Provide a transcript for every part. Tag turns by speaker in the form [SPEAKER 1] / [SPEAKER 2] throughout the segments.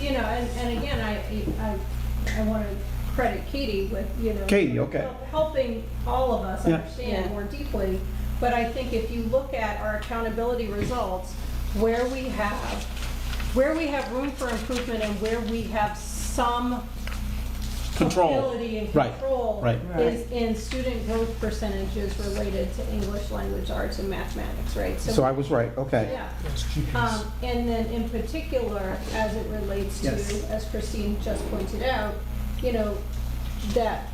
[SPEAKER 1] you know, and, and again, I, I, I want to credit Katie with, you know.
[SPEAKER 2] Katie, okay.
[SPEAKER 1] Helping all of us
[SPEAKER 2] Yeah.
[SPEAKER 1] understand
[SPEAKER 3] Yeah.
[SPEAKER 1] more deeply, but I think if you look at our accountability results, where we have, where we have room for improvement and where we have some
[SPEAKER 2] Control.
[SPEAKER 1] ability and
[SPEAKER 2] Right,
[SPEAKER 1] control
[SPEAKER 2] right.
[SPEAKER 1] is in student growth percentages related to English, language, arts, and mathematics, right?
[SPEAKER 2] So I was right, okay.
[SPEAKER 1] Yeah. Um, And then in particular, as it relates to,
[SPEAKER 2] Yes.
[SPEAKER 1] as Christine just pointed out, you know, that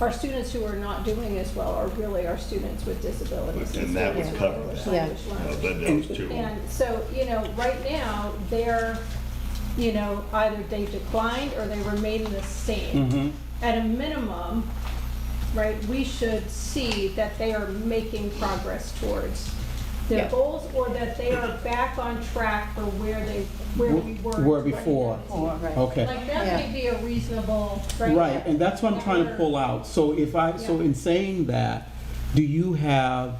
[SPEAKER 1] our students who are not doing as well are really our students with disabilities.
[SPEAKER 4] And that would
[SPEAKER 1] Yeah.
[SPEAKER 4] cover that.
[SPEAKER 3] Yeah.
[SPEAKER 4] Uh, But those two,
[SPEAKER 1] And so, you know, right now, they're, you know, either they declined or they remain the same.
[SPEAKER 2] Mhm.
[SPEAKER 1] At a minimum, right, we should see that they are making progress towards their
[SPEAKER 3] Yeah.
[SPEAKER 1] goals or that they are back on track for where they, where we were.
[SPEAKER 2] Were
[SPEAKER 1] in
[SPEAKER 2] before.
[SPEAKER 1] 2019.
[SPEAKER 2] Okay.
[SPEAKER 1] Like, that may be a reasonable, right?
[SPEAKER 2] Right, and that's what I'm trying to
[SPEAKER 1] Or-
[SPEAKER 2] pull out. So if I, so
[SPEAKER 1] Yeah.
[SPEAKER 2] in saying that, do you have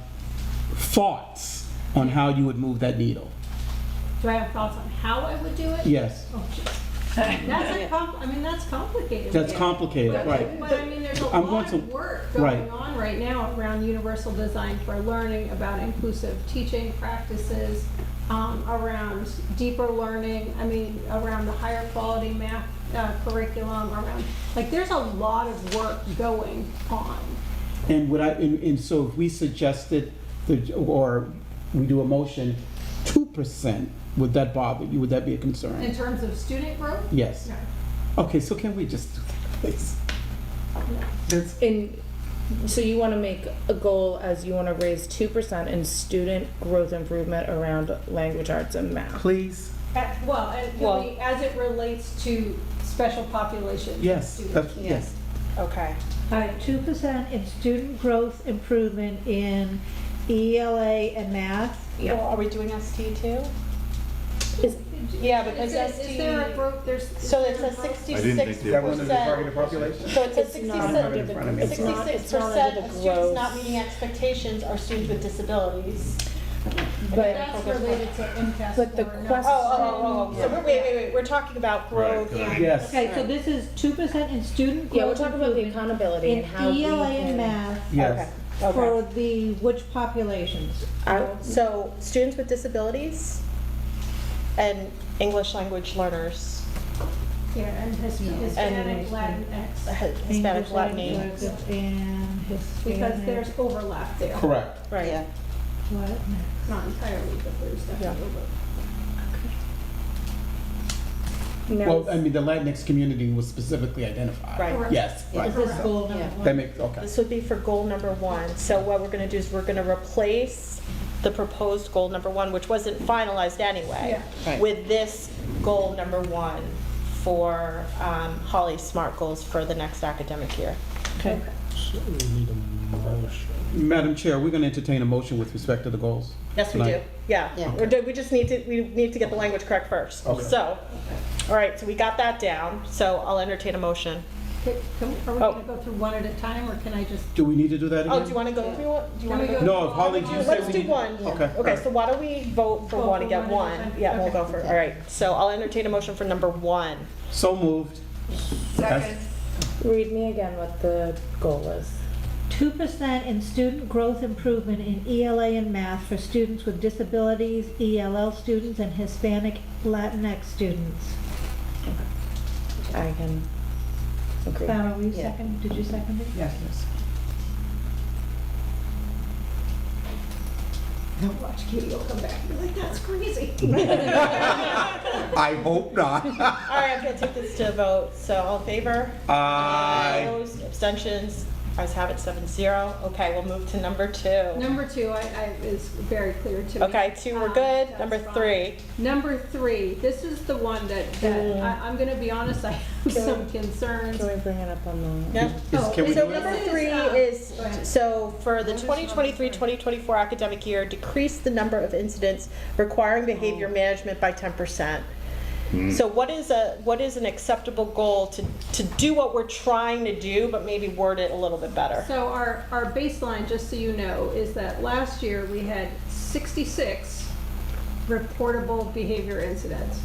[SPEAKER 2] thoughts on how you would move that needle?
[SPEAKER 1] Do I have thoughts on how I would do it?
[SPEAKER 2] Yes,
[SPEAKER 1] Oh, geez. That's a com, I mean, that's complicated.
[SPEAKER 2] that's
[SPEAKER 1] Yeah.
[SPEAKER 2] complicated, right.
[SPEAKER 1] But I mean, there's a
[SPEAKER 2] I'm
[SPEAKER 1] lot
[SPEAKER 2] going
[SPEAKER 1] of
[SPEAKER 2] to-
[SPEAKER 1] work
[SPEAKER 2] right.
[SPEAKER 1] going on right now around universal design for learning, about inclusive teaching practices, um, around deeper learning, I mean, around the higher quality math uh, curriculum, around, like, there's a lot of work going on.
[SPEAKER 2] And would I, and, and so if we suggested, the or we do a motion, two percent, would that bother you? Would that be a
[SPEAKER 1] In
[SPEAKER 2] concern?
[SPEAKER 1] terms of student growth?
[SPEAKER 2] Yes.
[SPEAKER 1] No,
[SPEAKER 2] Okay, so can we just do that, please?
[SPEAKER 1] no.
[SPEAKER 3] And so you want to make a goal as you want to raise two percent in student growth improvement around language arts and math.
[SPEAKER 2] Please?
[SPEAKER 1] At- Well, and can
[SPEAKER 3] Well-
[SPEAKER 1] we- as it relates to special populations. of
[SPEAKER 2] Yes,
[SPEAKER 1] students.
[SPEAKER 2] that's, yes.
[SPEAKER 3] Okay.
[SPEAKER 5] All right, two percent in student growth improvement in ELA and math.
[SPEAKER 6] Well, are we doing ST too?
[SPEAKER 3] Is-
[SPEAKER 6] Yeah,
[SPEAKER 1] Is
[SPEAKER 6] because
[SPEAKER 1] there-
[SPEAKER 6] ST.
[SPEAKER 1] is there a broke, there's.
[SPEAKER 6] So
[SPEAKER 1] is
[SPEAKER 6] it's
[SPEAKER 1] there
[SPEAKER 6] a
[SPEAKER 1] growth?
[SPEAKER 4] I didn't think
[SPEAKER 6] sixty-six,
[SPEAKER 4] there was.
[SPEAKER 6] Wasn't it targeted
[SPEAKER 2] population?
[SPEAKER 6] so it's a
[SPEAKER 3] It's not under
[SPEAKER 6] sixty-six
[SPEAKER 3] the
[SPEAKER 2] front of me. It's
[SPEAKER 3] not- it's not
[SPEAKER 6] percent
[SPEAKER 3] under the
[SPEAKER 6] of students
[SPEAKER 3] growth.
[SPEAKER 6] not meeting expectations are students with disabilities.
[SPEAKER 3] But
[SPEAKER 1] That's related to MCAS.
[SPEAKER 3] But the
[SPEAKER 1] score, not-
[SPEAKER 3] question-
[SPEAKER 6] Oh, oh, oh, oh, so we're, wait, wait, wait, we're talking about growth.
[SPEAKER 4] Right, 'cause I-
[SPEAKER 2] Yes.
[SPEAKER 5] Okay, so this is two percent in student
[SPEAKER 3] yeah, we're
[SPEAKER 5] growth
[SPEAKER 3] talking about the
[SPEAKER 5] improvement
[SPEAKER 3] accountability
[SPEAKER 5] in
[SPEAKER 3] and how we
[SPEAKER 5] ELA E and
[SPEAKER 3] can-
[SPEAKER 5] math
[SPEAKER 2] Yes.
[SPEAKER 3] Okay.
[SPEAKER 5] for the which populations?
[SPEAKER 3] I-
[SPEAKER 6] So students with disabilities and English language learners,
[SPEAKER 1] Yeah, and His- Hispanic, Latin, X,
[SPEAKER 6] Hispanic,
[SPEAKER 5] English
[SPEAKER 6] Latin.
[SPEAKER 5] language And
[SPEAKER 1] because
[SPEAKER 5] Hispanic,
[SPEAKER 1] there's overlap there.
[SPEAKER 2] Correct.
[SPEAKER 6] Right.
[SPEAKER 5] what?
[SPEAKER 1] Not entirely, but there's definitely overlap.
[SPEAKER 3] now,
[SPEAKER 2] Well, I mean, the Latinx community was specifically identified.
[SPEAKER 6] Right.
[SPEAKER 1] Correct.
[SPEAKER 2] Yes, right.
[SPEAKER 5] Is this goal number
[SPEAKER 3] Yeah.
[SPEAKER 5] one?
[SPEAKER 2] That makes, okay.
[SPEAKER 6] This would be for goal number one. So what we're gonna do is we're gonna replace the proposed goal number one, which wasn't finalized anyway,
[SPEAKER 3] Yeah. Right.
[SPEAKER 6] with this goal number one for um, Holly's SMART goals for the next academic year.
[SPEAKER 3] okay.
[SPEAKER 2] Madam Chair, we're going to entertain a motion with respect to the goals.
[SPEAKER 6] Yes, we do.
[SPEAKER 2] tonight.
[SPEAKER 6] Yeah. We're do- We just need to, we need to get the language correct first.
[SPEAKER 2] Okay.
[SPEAKER 6] So, all right, so we got that down. So I'll entertain a motion.
[SPEAKER 1] Can- can we- Are we
[SPEAKER 6] Oh.
[SPEAKER 1] going to go through one at a time, or can I just?
[SPEAKER 2] Do we need to do that again?
[SPEAKER 6] Oh, do you wanna go through it? Do
[SPEAKER 1] Can
[SPEAKER 6] you wanna
[SPEAKER 1] we
[SPEAKER 6] go?
[SPEAKER 1] go-
[SPEAKER 2] No, if Holly, you said
[SPEAKER 6] Let's
[SPEAKER 2] we
[SPEAKER 6] do
[SPEAKER 2] need-
[SPEAKER 6] one.
[SPEAKER 2] Okay.
[SPEAKER 6] Okay, so why don't we vote for
[SPEAKER 1] Vote
[SPEAKER 6] one
[SPEAKER 1] for
[SPEAKER 6] and get
[SPEAKER 1] one
[SPEAKER 6] one?
[SPEAKER 1] and then-
[SPEAKER 6] Yeah, we'll
[SPEAKER 1] okay.
[SPEAKER 6] go for, all right. So I'll entertain a motion for number one.
[SPEAKER 2] So moved. Second.
[SPEAKER 3] Read me again what the goal is.
[SPEAKER 5] Two percent in student growth improvement in ELA and math for students with disabilities, ELL students, and Hispanic Latinx students.
[SPEAKER 3] I can agree.
[SPEAKER 5] Farah, were you second, did you second it?
[SPEAKER 7] Yes, yes.
[SPEAKER 1] No, watch Katie will come back. You're like, that's crazy.
[SPEAKER 2] I hope not.
[SPEAKER 6] All right, I'm gonna take this to a vote, so all in favor?
[SPEAKER 2] Aye.
[SPEAKER 6] Opposed, abstentions, ayes have it, seven zero. Okay, we'll move to number two.
[SPEAKER 1] Number two, I, I, is very clear to me.
[SPEAKER 6] Okay, two, we're
[SPEAKER 1] Um,
[SPEAKER 6] good.
[SPEAKER 1] that's
[SPEAKER 6] Number
[SPEAKER 1] fine.
[SPEAKER 6] three. Mm.
[SPEAKER 1] Number three, this is the one that, that, I, I'm gonna be honest, I have
[SPEAKER 3] Can we-
[SPEAKER 1] some concerns.
[SPEAKER 3] Can we bring it up on the?
[SPEAKER 6] Yep.
[SPEAKER 2] Is- Can we
[SPEAKER 1] So
[SPEAKER 2] do
[SPEAKER 1] this
[SPEAKER 2] it?
[SPEAKER 6] Number
[SPEAKER 1] is,
[SPEAKER 6] three
[SPEAKER 1] uh,
[SPEAKER 6] is,
[SPEAKER 1] go ahead.
[SPEAKER 6] so for the
[SPEAKER 1] What is number
[SPEAKER 6] 2023-2024 academic year, decrease the number of incidents requiring
[SPEAKER 1] Oh.
[SPEAKER 6] behavior management by 10%. So what is a, what is an acceptable goal to, to do what we're trying to do, but maybe word it a little bit better?
[SPEAKER 1] So our, our baseline, just so you know, is that last year we had sixty-six reportable behavior incidents.